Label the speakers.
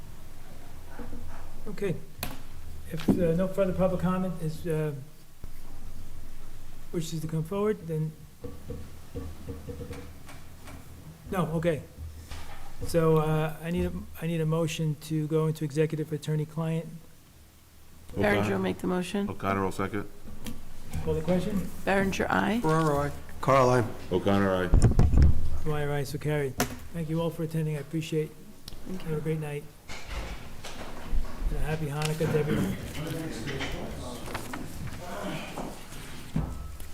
Speaker 1: Okay. If uh, no further public comment is, uh, wishes to come forward, then... No, okay. So uh, I need, a- I need a motion to go into executive attorney-client.
Speaker 2: Berenger will
Speaker 3: O'Connor
Speaker 2: make the motion.
Speaker 3: O'Connor will second.
Speaker 1: Call the question?
Speaker 2: Berenger, aye.
Speaker 4: Ferraro, I. Carl, I.
Speaker 3: O'Connor, aye.
Speaker 1: Dwyer, aye, so carried. Thank you all for attending, I appreciate it. Have a great night. And a happy Hanukkah to everyone.